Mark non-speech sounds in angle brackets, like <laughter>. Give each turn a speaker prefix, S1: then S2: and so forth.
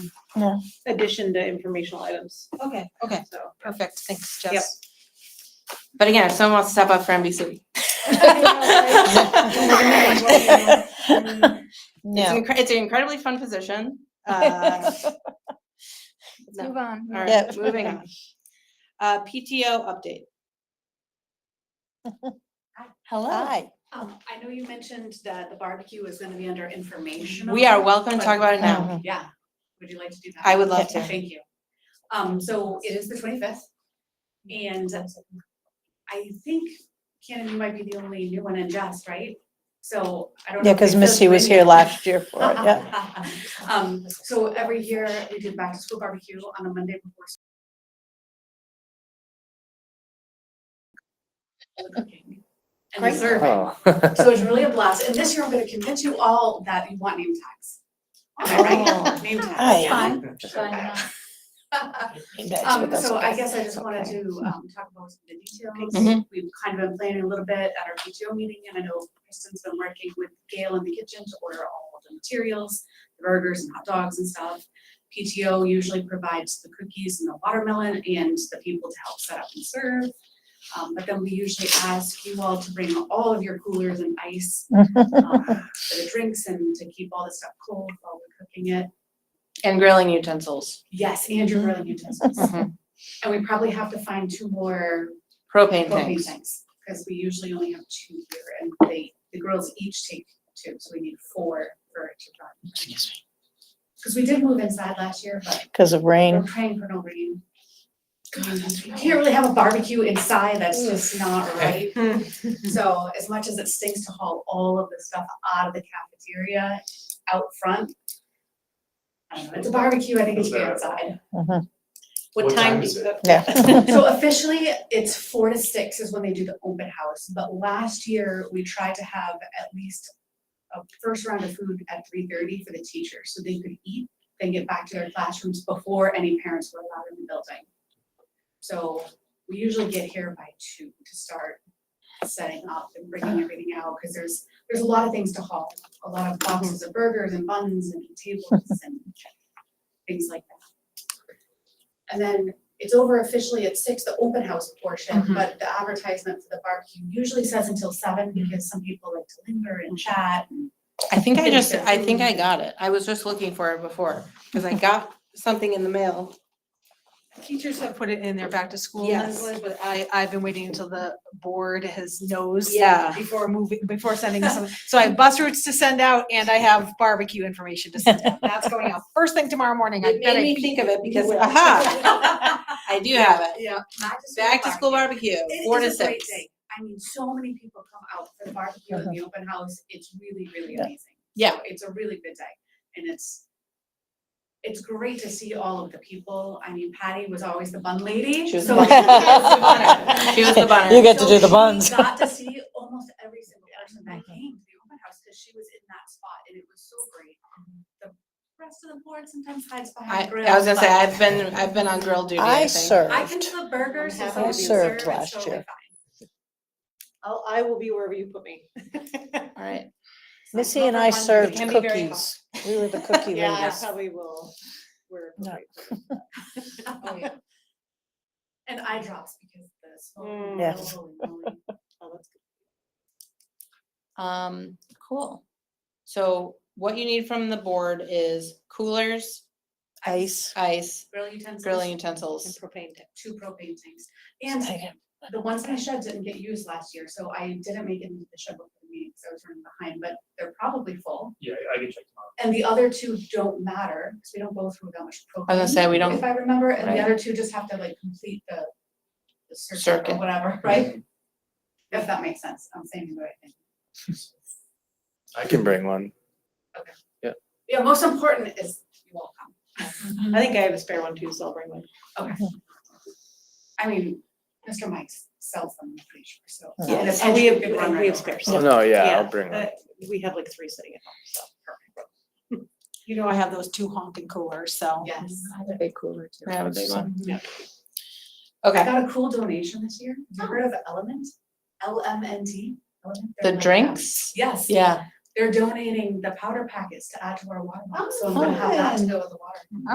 S1: No.
S2: addition to informational items,
S3: Okay, okay,
S2: so.
S3: perfect. Thanks,
S2: Yep.
S3: Jess.
S1: But again, if someone wants to step up for NBC.
S4: <laughs>
S1: It's,
S3: No.
S1: incre- it's an incredibly fun position. Uh,
S3: Uh,
S1: no.
S4: Move on.
S1: All
S3: Yep.
S1: right, moving on. Uh, PTO update.
S3: Hello.
S5: Um, I know you mentioned that the barbecue is gonna be under informational.
S1: We are welcome to talk about it now.
S5: Yeah, would you like to do that?
S1: I would love
S5: Yeah,
S1: to.
S5: Thank you. Um, so it is the twenty-fifth. And I think Cannon, you might be the only new one in Jess, right? So I don't know.
S6: Yeah,
S5: if
S6: because
S5: they filled
S6: Missy
S5: you
S6: was
S5: in yet.
S6: here last year for
S5: <laughs>
S6: it, yeah.
S5: Um, so every year we did back to school barbecue on a Monday before. school. Cooking And the
S3: Great.
S5: serving.
S7: Oh.
S5: So it's really a blast. And this year I'm gonna convince you all that you want name tags. Am I right? Name tags,
S6: Aye.
S5: fun. <laughs>
S6: You guys
S5: Um,
S6: with us
S5: so I
S6: again.
S5: guess I just wanted
S6: Okay. Mm-hmm.
S5: to, um, talk about some of the details.
S1: Mhm.
S5: We've kind of been planning a little bit at our PTO meeting and I know Kristen's been working with Gail in the kitchen to order all of the materials, the burgers and hot dogs and stuff. PTO usually provides the cookies and the watermelon and the people to help set up and serve. Um, but then we usually ask you all to bring all of your coolers and
S6: <laughs>
S5: ice, um, for the drinks and to keep all the stuff cold while we're cooking it.
S1: And grilling utensils,
S5: Yes, and your
S7: Mm-hmm.
S5: grilling utensils.
S1: Mhm.
S5: And we probably have to find two more
S1: propane
S5: propane
S1: things.
S5: tanks, because we usually only have two here, and they, the girls each take two, so we need four for it to run.
S7: Excuse me.
S5: Because we did move inside last year, but
S6: Because of
S5: we're
S6: rain.
S5: praying for no rain. You Can't really have a barbecue inside, that's just not
S7: <laughs>
S5: right. So as much as it stinks to haul all of the stuff out of the cafeteria out front, I don't know, it's a barbecue, I think it should be outside.
S6: Mhm.
S2: What
S7: What
S2: time
S7: time
S2: is
S7: is
S2: it?
S6: <laughs> Yeah.
S5: So officially, it's four to six is when they do the open house, but last year, we tried to have at least a first round of food at three thirty for the teachers, so they could eat, then get back to their classrooms before any parents were allowed in the building. So we usually get here by two to start setting up and bringing everything out, because there's, there's a lot of things to haul. A lot of boxes of burgers and buns and tables and things like that. And then it's over officially at six, the open house portion,
S1: Mhm.
S5: but the advertisement for the barbecue usually says until seven
S1: Mm-hmm.
S5: because some people like to linger and chat.
S1: <laughs>
S5: and-
S1: I think I
S5: Things
S1: just,
S5: that-
S1: I Mm. think I got it. I was just looking for it before, because I got something in the mail.
S3: Teachers have put it in their back to school
S1: Yes.
S3: language, but I, I've been waiting until the board has knows.
S1: Yeah.
S3: Before moving, before sending some, so I have bus routes to send out and I have barbecue information to send out. That's
S1: <laughs>
S3: going out first thing tomorrow morning. I
S1: It
S3: bet I
S1: made me think of it
S5: <laughs>
S1: because,
S3: will.
S1: aha, I do have it.
S3: Yeah.
S1: Back to school barbecue,
S5: It
S1: four to
S5: is a great
S1: six.
S5: thing. I mean, so many people come out for the barbecue and the open house. It's really, really
S6: Yeah.
S5: amazing.
S1: Uh-huh. Yeah.
S5: So It's a really good day and it's, it's great to see all of the people. I mean, Patty was always the bun lady.
S1: She was
S5: so
S1: the <laughs>
S6: bun-
S1: She was the bunner.
S6: You get to do
S5: So
S6: the
S5: she
S6: buns.
S5: Got to see almost every single person that came to the open house because she was in that spot and it was so great. The rest of the board sometimes hides
S1: I,
S5: behind grills.
S1: I was gonna say,
S5: but
S1: I've been, I've been on grill duty, I
S6: I
S1: think.
S5: I can
S6: served.
S5: flip burgers
S2: I'm
S5: if
S2: happy
S5: I
S2: to be
S6: served
S5: served
S6: last year.
S2: I'll, I will be wherever you put me.
S1: All right.
S6: Missy and I served
S1: can be very
S6: cookies. We were
S5: <laughs>
S6: the cookie
S2: Yeah, I
S6: ladies.
S2: probably will. We're.
S6: No.
S5: And eye drops because the smoke.
S2: Mm.
S6: Yes.
S5: Holy moly.
S1: Um, cool. So what you need from the board is coolers,
S6: Ice.
S1: ice,
S5: Grill utensils.
S1: grilling utensils.
S2: propane tank.
S5: Two propane tanks. And the ones in the shed didn't get used last year, so I didn't make it into the shed before the meeting, so I was running behind, but they're probably full.
S7: Yeah, I can check tomorrow.
S5: And the other two don't matter, because we don't go through that much propane.
S1: I was gonna say, we
S5: If
S1: don't,
S5: I remember, and
S1: Right.
S5: the other two just have to like complete the, the circuit or
S1: Circuit. Mm-hmm.
S5: whatever, right? If that makes sense, I'm saying the right thing.
S7: I can bring one.
S5: Yeah, most important is you all come.
S2: I think I have a spare one too, so I'll bring one.
S5: I mean, Mr. Mike's sells them, I'm pretty sure, so.
S6: Yeah.
S5: and
S2: And we
S5: essentially,
S2: have,
S5: we run
S2: and
S5: right
S2: we have
S5: over.
S2: spares.
S7: Oh, no, yeah,
S2: Yeah,
S7: I'll bring one.
S2: uh, We have like three sitting at home, so.
S3: You know, I have those two honking coolers, so.
S5: Yes.
S1: I have a big one.
S5: Yeah. I
S1: Okay,
S5: got a cool donation this year. Have you heard of Element? L M N T?
S1: the drinks,
S5: Yes.
S1: yeah.
S5: They're donating the powder packets to add to our water bottle, so I'm gonna have that to go with the water.